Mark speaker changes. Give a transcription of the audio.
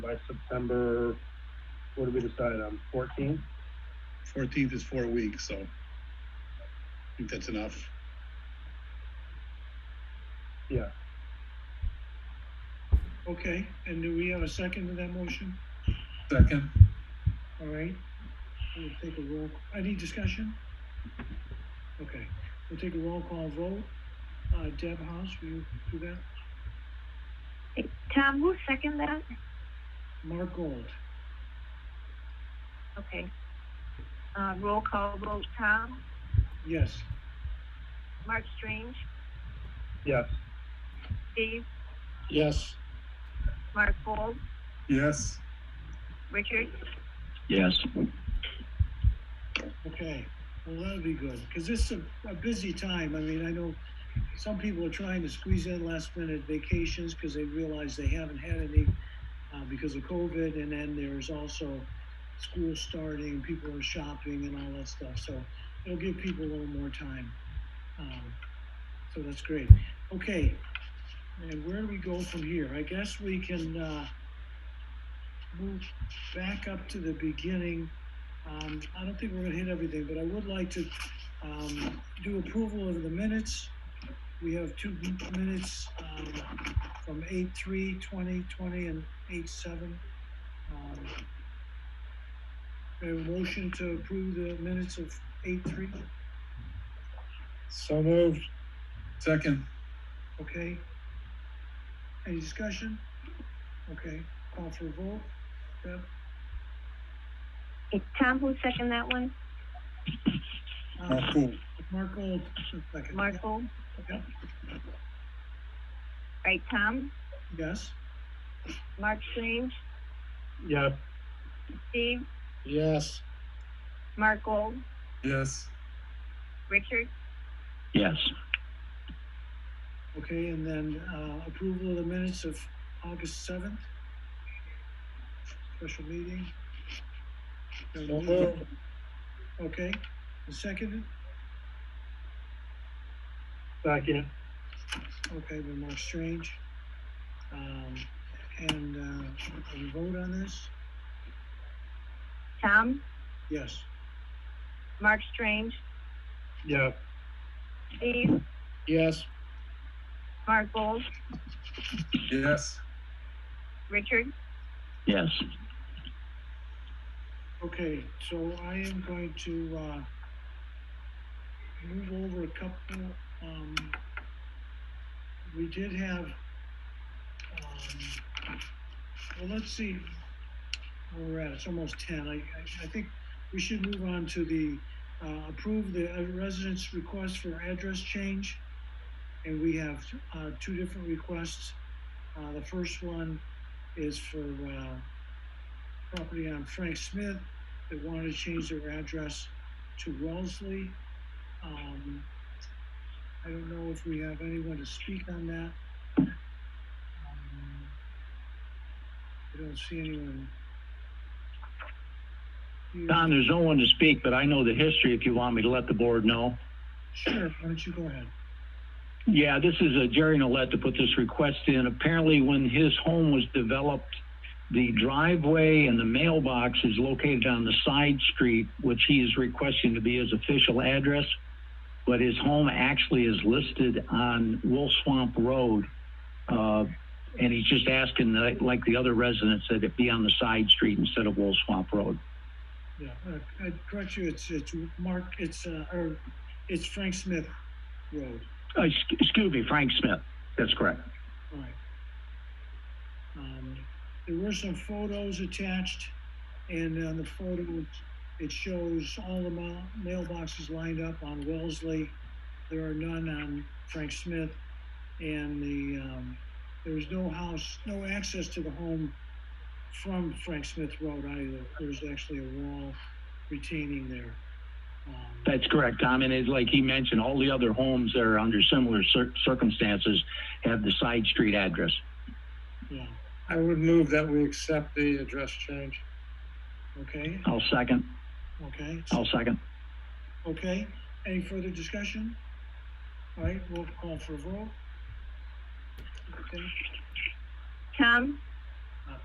Speaker 1: by September, what did we decide on, fourteenth?
Speaker 2: Fourteenth is four weeks, so I think that's enough.
Speaker 1: Yeah.
Speaker 3: Okay, and do we have a second to that motion?
Speaker 2: Second.
Speaker 3: All right, we'll take a roll, any discussion? Okay, we'll take a roll call vote. Uh, Deb House, will you do that?
Speaker 4: Tom, who seconded that?
Speaker 3: Mark Gold,
Speaker 4: Okay. Uh, roll call vote, Tom,
Speaker 3: yes.
Speaker 4: Mark Strange,
Speaker 1: Yes,
Speaker 4: Steve,
Speaker 3: Yes.
Speaker 4: Mark Gold,
Speaker 2: Yes.
Speaker 4: Richard,
Speaker 5: Yes.
Speaker 3: Okay, well, that'll be good, because this is a, a busy time. I mean, I know some people are trying to squeeze in last minute vacations because they realize they haven't had any uh, because of COVID, and then there's also school starting, people are shopping and all that stuff, so it'll give people a little more time. Um, So that's great. Okay, and where do we go from here? I guess we can, uh, move back up to the beginning um, I don't think we're gonna hit everything, but I would like to, um, do approval of the minutes. We have two m- minutes, um, from eight three twenty twenty and eight seven. Um, A motion to approve the minutes of eight three,
Speaker 2: So moved. Second.
Speaker 3: okay? Any discussion? Okay, call for a vote, Deb?
Speaker 4: It's Tom, who seconded that one?
Speaker 3: Uh,
Speaker 2: Oh, Cool.
Speaker 3: Mark Gold, just a second.
Speaker 4: Mark Gold?
Speaker 3: Yeah.
Speaker 4: Right, Tom,
Speaker 3: Yes?
Speaker 4: Mark Strange,
Speaker 1: yes,
Speaker 4: Steve,
Speaker 3: Yes.
Speaker 4: Mark Gold,
Speaker 2: Yes.
Speaker 4: Richard,
Speaker 5: Yes.
Speaker 3: Okay, and then, uh, approval of the minutes of August seventh? Special meeting? Okay, and seconded,
Speaker 1: second,
Speaker 3: okay, but more strange. Um, and, uh, we vote on this?
Speaker 4: Tom,
Speaker 3: Yes.
Speaker 4: Mark Strange,
Speaker 1: yes,
Speaker 4: Steve,
Speaker 3: Yes.
Speaker 4: Mark Gold,
Speaker 2: Yes.
Speaker 4: Richard,
Speaker 5: Yes.
Speaker 3: Okay, so I am going to, uh, move over a couple, um, we did have, um, well, let's see, where we're at, it's almost ten, I, I, I think we should move on to the, uh, approve the uh, residents' request for address change. And we have, uh, two different requests. Uh, the first one is for, uh, property on Frank Smith that wanted to change their address to Wellesley. Um, I don't know if we have anyone to speak on that. Um, I don't see anyone. here.
Speaker 5: Don, there's no one to speak, but I know the history if you want me to let the board know.
Speaker 3: Sure, why don't you go ahead?
Speaker 5: Yeah, this is uh, Jerry Nollet to put this request in. Apparently, when his home was developed, the driveway and the mailbox is located on the side street, which he is requesting to be his official address. But his home actually is listed on Wolf Swamp Road. Uh, and he's just asking, that, like the other residents, that it be on the side street instead of Wolf Swamp Road.
Speaker 3: Yeah, uh, I- I'd correct you, it's, it's Mark, it's, uh, or, it's Frank Smith Road.
Speaker 5: Uh, sc- excuse me, Frank Smith. That's correct.
Speaker 3: Right. Um, there were some photos attached, and on the photo, it shows all the ma- mailboxes lined up on Wellesley. There are none on Frank Smith, and the, um, there is no house, no access to the home from Frank Smith Road either. There's actually a wall retaining there. Um,
Speaker 5: That's correct, Tom. And it's like he mentioned, all the other homes that are under similar cir- circumstances have the side street address.
Speaker 3: Yeah,
Speaker 1: I would move that we accept the address change.
Speaker 3: okay,
Speaker 5: I'll second.
Speaker 3: okay.
Speaker 5: I'll second.
Speaker 3: Okay, any further discussion? All right, we'll call for a vote. Okay,
Speaker 4: Tom,